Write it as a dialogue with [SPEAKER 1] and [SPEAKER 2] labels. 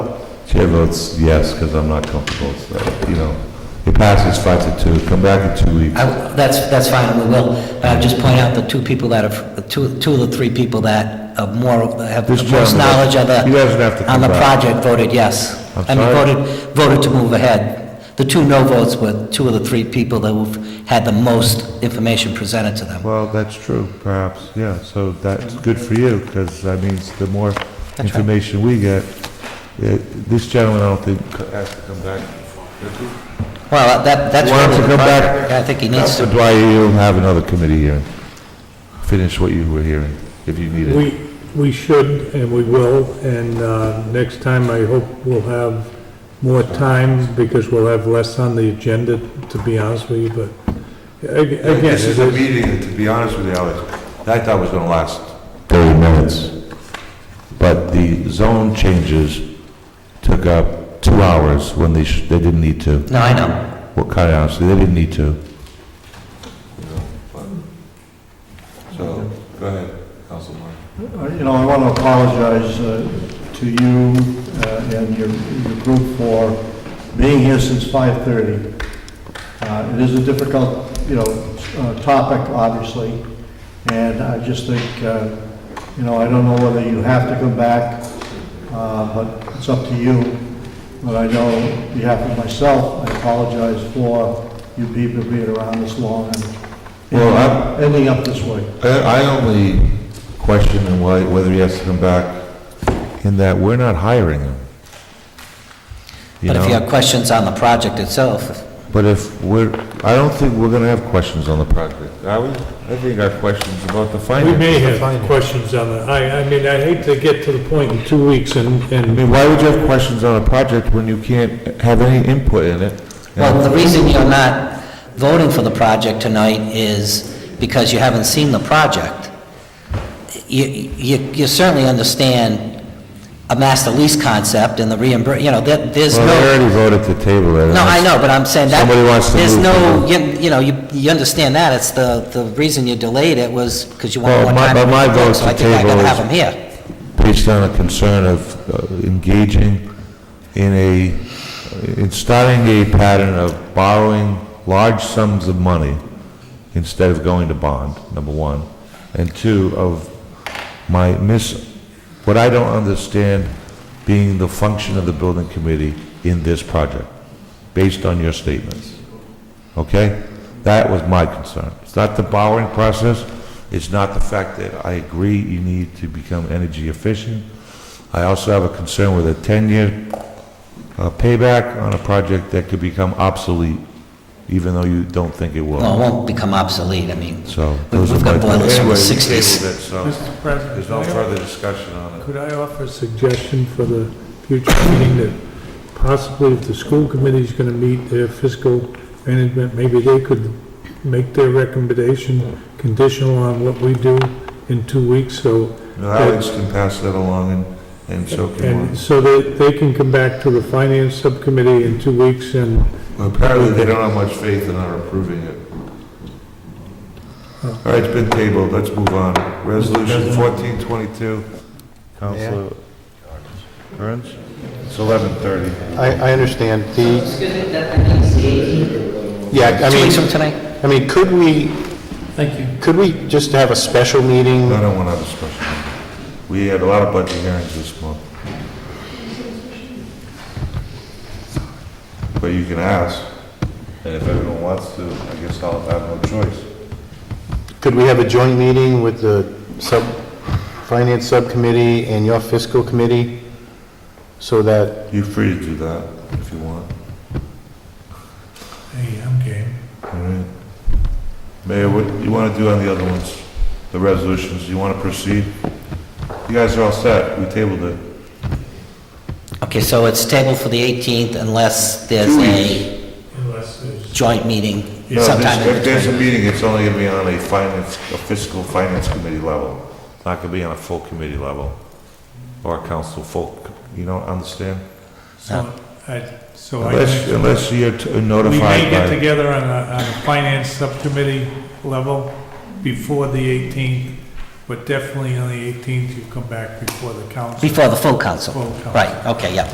[SPEAKER 1] Chair votes yes, because I'm not comfortable, so, you know, it passes five to two, come back in two weeks.
[SPEAKER 2] I- That's, that's fine, we will. But I'll just point out the two people that are, two, two of the three people that are more, have the
[SPEAKER 1] This
[SPEAKER 2] most
[SPEAKER 1] gentleman,
[SPEAKER 2] knowledge of the...
[SPEAKER 1] he doesn't have to
[SPEAKER 2] On
[SPEAKER 1] come
[SPEAKER 2] the
[SPEAKER 1] back.
[SPEAKER 2] project voted yes.
[SPEAKER 1] I'm
[SPEAKER 2] I mean,
[SPEAKER 1] sorry?
[SPEAKER 2] voted, voted to move ahead. The two no votes were two of the three people that who've had the most information presented to them.
[SPEAKER 1] Well, that's true, perhaps, yeah, so that's good for you, because that means the more information we get, it- this gentleman, I don't think, c- has to come back.
[SPEAKER 2] Well, that, that's
[SPEAKER 1] Why don't
[SPEAKER 2] really
[SPEAKER 1] you come
[SPEAKER 2] the
[SPEAKER 1] back?
[SPEAKER 2] project. I think he needs
[SPEAKER 1] Counselor
[SPEAKER 2] to,
[SPEAKER 1] Dwyer, you'll have another committee hearing. Finish what you were hearing, if you need it.
[SPEAKER 3] We, we should, and we will, and uh, next time I hope we'll have more time, because we'll have less on the agenda, to be honest with you, but ag- again,
[SPEAKER 1] This is
[SPEAKER 3] it
[SPEAKER 1] a
[SPEAKER 3] is-
[SPEAKER 1] meeting, that, to be honest with you, Alex, I thought was gonna last 30 minutes, but the zone changes took up two hours when they, sh- they didn't need to.
[SPEAKER 2] no, I know.
[SPEAKER 1] Well, kind of honestly, they didn't need to. So, go ahead, Council
[SPEAKER 4] Uh, You know, I want to apologize uh, to you uh, and your your group for being here since 5:30. Uh, It is a difficult, you know, uh, topic, obviously, and I just think, uh, you know, I don't know whether you have to come back, uh, but it's up to you. But I know, on behalf of myself, I apologize for you people being around this long
[SPEAKER 1] Well, I'm-
[SPEAKER 4] and ending up this way.
[SPEAKER 1] I, I only question him why- whether he has to come back in that we're not hiring him. You
[SPEAKER 2] But if you
[SPEAKER 1] know,
[SPEAKER 2] have questions on the project itself,
[SPEAKER 1] but if we're, I don't think we're gonna have questions on the project. I would, I think our questions about the
[SPEAKER 3] we
[SPEAKER 1] finances.
[SPEAKER 3] may have questions on that. I, I mean, I hate to get to the point in two weeks and,
[SPEAKER 1] I
[SPEAKER 3] and
[SPEAKER 1] mean, why would you have questions on a project when you can't have any input in it?
[SPEAKER 2] Well, the reason you're not voting for the project tonight is because you haven't seen the project. You, you, you certainly understand a master lease concept and the reimbursement, you know, that, there's
[SPEAKER 1] Well, they
[SPEAKER 2] no...
[SPEAKER 1] already voted to table it.
[SPEAKER 2] No, I know, but I'm saying that...
[SPEAKER 1] Somebody wants to
[SPEAKER 2] There's
[SPEAKER 1] move
[SPEAKER 2] no,
[SPEAKER 1] forward.
[SPEAKER 2] you you know, you, you understand that, it's the, the reason you delayed it was because you
[SPEAKER 1] Well,
[SPEAKER 2] wanted more
[SPEAKER 1] my-
[SPEAKER 2] time...
[SPEAKER 1] but
[SPEAKER 2] to
[SPEAKER 1] my
[SPEAKER 2] work,
[SPEAKER 1] vote
[SPEAKER 2] So
[SPEAKER 1] to
[SPEAKER 2] I think I
[SPEAKER 1] table
[SPEAKER 2] gotta
[SPEAKER 1] is-
[SPEAKER 2] have them here.
[SPEAKER 1] based on a concern of uh, engaging in a, in starting a pattern of borrowing large sums of money instead of going to bond, number one. And two, of my miss, what I don't understand being the function of the building committee in this project, based on your statements. Okay? That was my concern. It's not the borrowing process, it's not the fact that I agree you need to become energy efficient. I also have a concern with a 10-year uh, payback on a project that could become obsolete, even though you don't think it
[SPEAKER 2] Well, it
[SPEAKER 1] will.
[SPEAKER 2] won't become obsolete, I mean,
[SPEAKER 1] So
[SPEAKER 2] We've-
[SPEAKER 1] those are
[SPEAKER 2] we've
[SPEAKER 1] my...
[SPEAKER 2] got boilers from the
[SPEAKER 1] Anyway, we
[SPEAKER 2] 60s.
[SPEAKER 1] tabled it, so
[SPEAKER 3] Mr. President.
[SPEAKER 1] There's no further discussion on it.
[SPEAKER 3] Could I offer a suggestion for the future meeting that possibly if the school committee is gonna meet their fiscal management, maybe they could make their recommendation conditional on what we do in two weeks, so,
[SPEAKER 1] No, Alex can pass that along and, and so can
[SPEAKER 3] and
[SPEAKER 1] we.
[SPEAKER 3] so that they can come back to the finance subcommittee in two weeks and,
[SPEAKER 1] Apparently, they don't have much faith in our approving it. All right, it's been tabled, let's move on. Resolution fourteen twenty-two. Counselor Burns? It's eleven thirty.
[SPEAKER 5] I, I understand the,
[SPEAKER 2] Excuse me, that, I think it's the 18th.
[SPEAKER 5] yeah, I
[SPEAKER 2] Two weeks from
[SPEAKER 5] mean,
[SPEAKER 2] tonight?
[SPEAKER 5] I mean, could we? Thank you. Could we just have a special meeting?
[SPEAKER 1] I don't want to have a special meeting. We had a lot of budget hearings this month. But you can ask, and if everyone wants to, I guess I'll have no choice.
[SPEAKER 5] Could we have a joint meeting with the sub, finance subcommittee and your fiscal committee? So that,
[SPEAKER 1] You're free to do that if you want.
[SPEAKER 3] hey, I'm game.
[SPEAKER 1] All right. Mayor, what do you want to do on the other ones, the resolutions? You want to proceed? You guys are all set. We tabled it.
[SPEAKER 2] Okay, so it's tabled for the 18th unless there's a...
[SPEAKER 3] Unless there's.
[SPEAKER 2] joint meeting
[SPEAKER 1] No,
[SPEAKER 2] sometime
[SPEAKER 1] this-
[SPEAKER 2] in
[SPEAKER 1] If there's a
[SPEAKER 2] between.
[SPEAKER 1] meeting, it's only going to be on a finance, a fiscal finance committee level. It's not going to be on a full committee level or a council full, you don't understand?
[SPEAKER 2] So
[SPEAKER 3] Oh, So
[SPEAKER 1] Unless, unless you're t-
[SPEAKER 3] We may
[SPEAKER 1] notified
[SPEAKER 3] get
[SPEAKER 1] by,
[SPEAKER 3] together on a, on a finance subcommittee level before the 18th, but definitely on the 18th, you come back before the council.
[SPEAKER 2] Before the full council?
[SPEAKER 3] Full council.
[SPEAKER 2] Right, okay, yeah.